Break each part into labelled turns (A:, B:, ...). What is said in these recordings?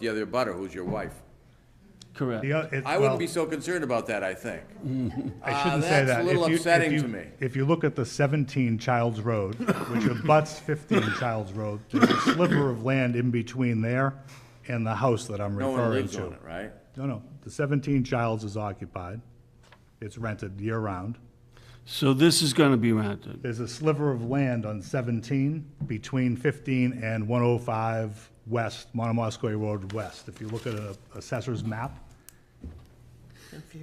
A: the other butter, who's your wife.
B: Correct.
C: The o- it-
A: I
C: well,
A: wouldn't be so concerned about that, I think.
C: I shouldn't say that.
A: That's a
C: If
A: little
C: you- if
A: upsetting
C: you-
A: to me.
C: If you look at the 17 Childs Road, which abuts 15 Childs Road, there's a sliver of land in between there and the house that I'm
A: No one
C: referring
A: lives
C: to.
A: on it, right?
C: No, no, the 17 Childs is occupied. It's rented year-round.
B: So this is going to be rented.
C: There's a sliver of land on 17 between 15 and 105 West, Monomoskoye Road West. If you look at a assessor's map,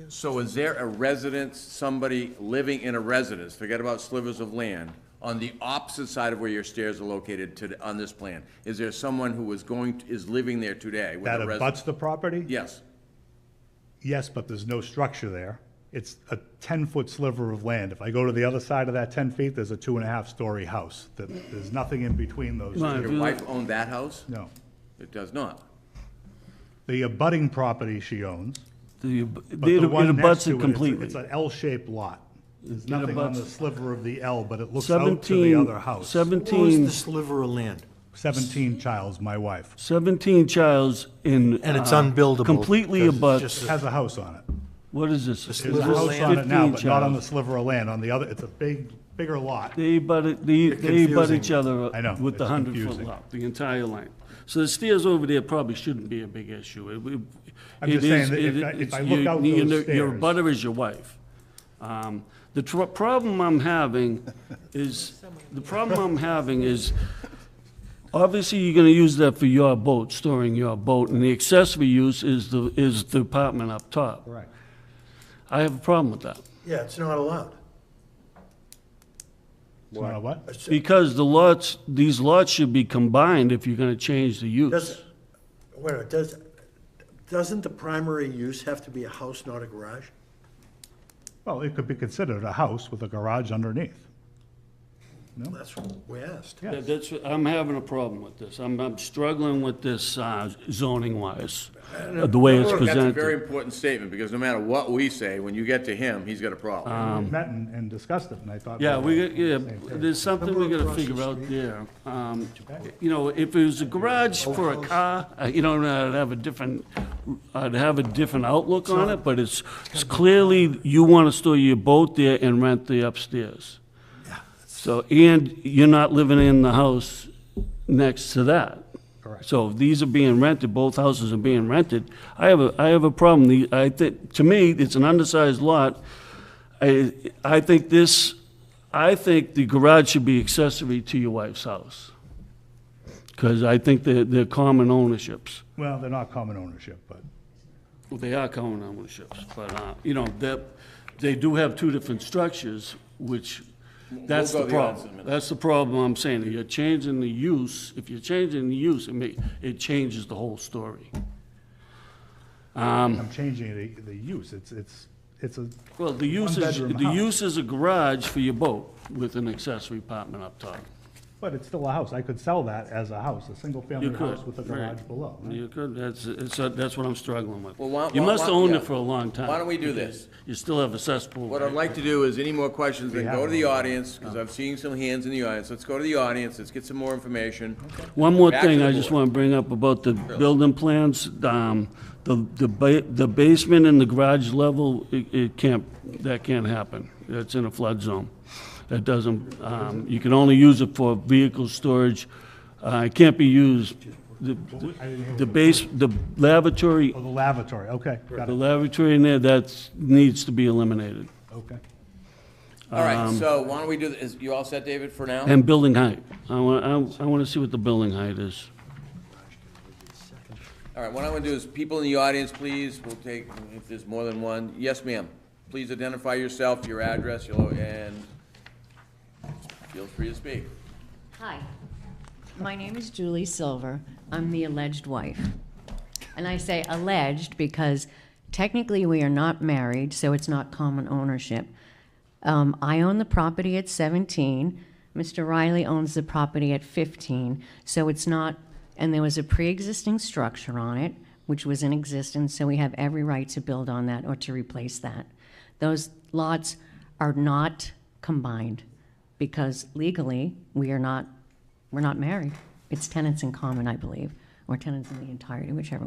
A: So is there a residence, somebody living in a residence, forget about slivers of land, on the opposite side of where your stairs are located to, on this plan? Is there someone who is going, to- is living there today with
C: that
A: a residence?
C: abuts the property?
A: Yes.
C: Yes, but there's no structure there. It's a 10-foot sliver of land. If I go to the other side of that 10 feet, there's a two-and-a-half-story house. That There's nothing in between those
B: Right.
C: two.
A: Your
B: Really?
A: wife owned that house?
C: No.
A: It does not.
C: The abutting property she owns,
B: The-
C: but
B: It
C: the one
B: it
C: next
B: abuts
C: to
B: it
C: it, it's-
B: completely.
C: it's an L-shaped lot. There's nothing on the sliver of the L, but it looks out to the
B: 17,
C: other house.
B: 17,
D: sliver of land?
C: 17 Childs, my wife,
B: 17 Childs in.
D: And it's
B: uh,
D: unbuildable
B: Completely
D: because it's
B: abuts,
D: just
C: has a house on it.
B: what is this? Is
C: There's a
B: this
C: house on it now,
B: 15
C: but not on the
B: Childs?
C: sliver of land. On the other, it's a big, bigger lot.
B: They butt, it- they, they butt
D: confusing.
B: each other
C: I know,
B: with the
C: it's
B: 100-foot
C: confusing.
B: lot, the entire line. So the stairs over there probably shouldn't be a big issue. It- it-
C: I'm
B: it
C: just saying
B: is-
C: that
B: it-
C: if I- if
B: it's-
C: I look
B: you-
C: out
B: you
C: those
B: know, Your
C: stairs-
B: butter is your wife. Um, The tr- problem I'm having is, the problem I'm having is, obviously, you're gonna use that for your boat, storing your boat, and the accessory use is the, is the apartment up top.
C: Correct.
B: I have a problem with that.
D: Yeah, it's not allowed.
C: It's not a what?
B: Because the lots, these lots should be combined if you're gonna change the use.
D: Does, wait, a minute, does, doesn't the primary use have to be a house, not a garage?
C: Well, it could be considered a house with a garage underneath.
D: That's what we asked.
C: Yeah.
B: That- That's, what- I'm having a problem with this. I'm, I'm struggling with this uh, zoning wise, uh, the way it's
A: That's a very
B: presented.
A: important statement, because no matter what we say, when you get to him, he's got a problem.
C: We Met and and discussed it, and I thought.
B: Um, Yeah,
C: were
B: we,
C: on
B: got-
C: the
B: yeah,
C: same page.
B: there's something we gotta figure out there. Um, You know, if it was a garage for a car, uh, you know, I'd have a different, I'd have a different outlook on it, but it's, it's clearly, you wanna store your boat there and rent the upstairs. So, and you're not living in the house next to that. Correct. So if these are being rented, both houses are being rented. I have a, I have a problem. The, I think, to me, it's an undersized lot. I, I think this, I think the garage should be accessory to your wife's house. Because I think they're, they're common ownerships.
C: Well, they're not common ownership, but
B: Well, They are common ownerships, but, uh, you know, that, they do have two different structures, which, that's
A: We'll
B: the
A: go the odds in a
B: problem.
A: minute.
B: That's the problem I'm saying, you're changing the use, if you're changing the use, it may, it changes the whole story. Um,
C: I'm changing the, the use. It's, it's, it's a,
B: Well, the use is,
C: One-bedroom
B: the
C: house.
B: use is a garage for your boat with an accessory apartment up top.
C: but it's still a house. I could sell that as a house, a
B: You
C: single-family
B: could.
C: house with a
B: right.
C: garage below. right?
B: You could, that's, it's, uh, that's what I'm struggling with.
A: Well, why-
B: You
A: why-
B: must
A: why-
B: have owned
A: yeah.
B: it for a long time.
A: Why don't we do
B: because
A: this?
B: You still have a cesspool.
A: What
B: right?
A: I'd like to do is, any more questions, then
C: We
A: go
C: have
A: to the
C: one.
A: audience, because I've seen some hands in the audience. Let's go to the audience, let's get some more information.
B: One more
A: Back to
B: thing
A: the
B: I just
A: board.
B: want to bring up about the building plans, um, the, the ba- the basement and the garage level, it, it can't, that can't happen. It's in a flood zone. That doesn't, um, you can only use it for vehicle storage. Uh, it can't be used, the, the base, the lavatory,
C: Oh, the lavatory, okay, got
B: the
C: it,
B: lavatory in there, that's, needs to be eliminated.
C: okay.
A: All right,
C: Um,
A: so why don't we do, th- is, you all set, David, for now?
B: And building height. I want, I want to see what the building height is.
A: All right, what I'm gonna do is, people in the audience, please, we'll take, if there's more than one, yes, ma'am. Please identify yourself, your address, your, lo- and feel free to speak.
E: Hi, my name is Julie Silver. I'm the alleged wife. And I say alleged because technically we are not married, so it's not common ownership. Um, I own the property at 17. Mr. Riley owns the property at 15, so it's not, and there was a pre-existing structure on it, which was in existence, so we have every right to build on that or to replace that. Those lots are not combined because legally, we are not, we're not married. It's tenants in common, I believe, or tenants in the entirety, whichever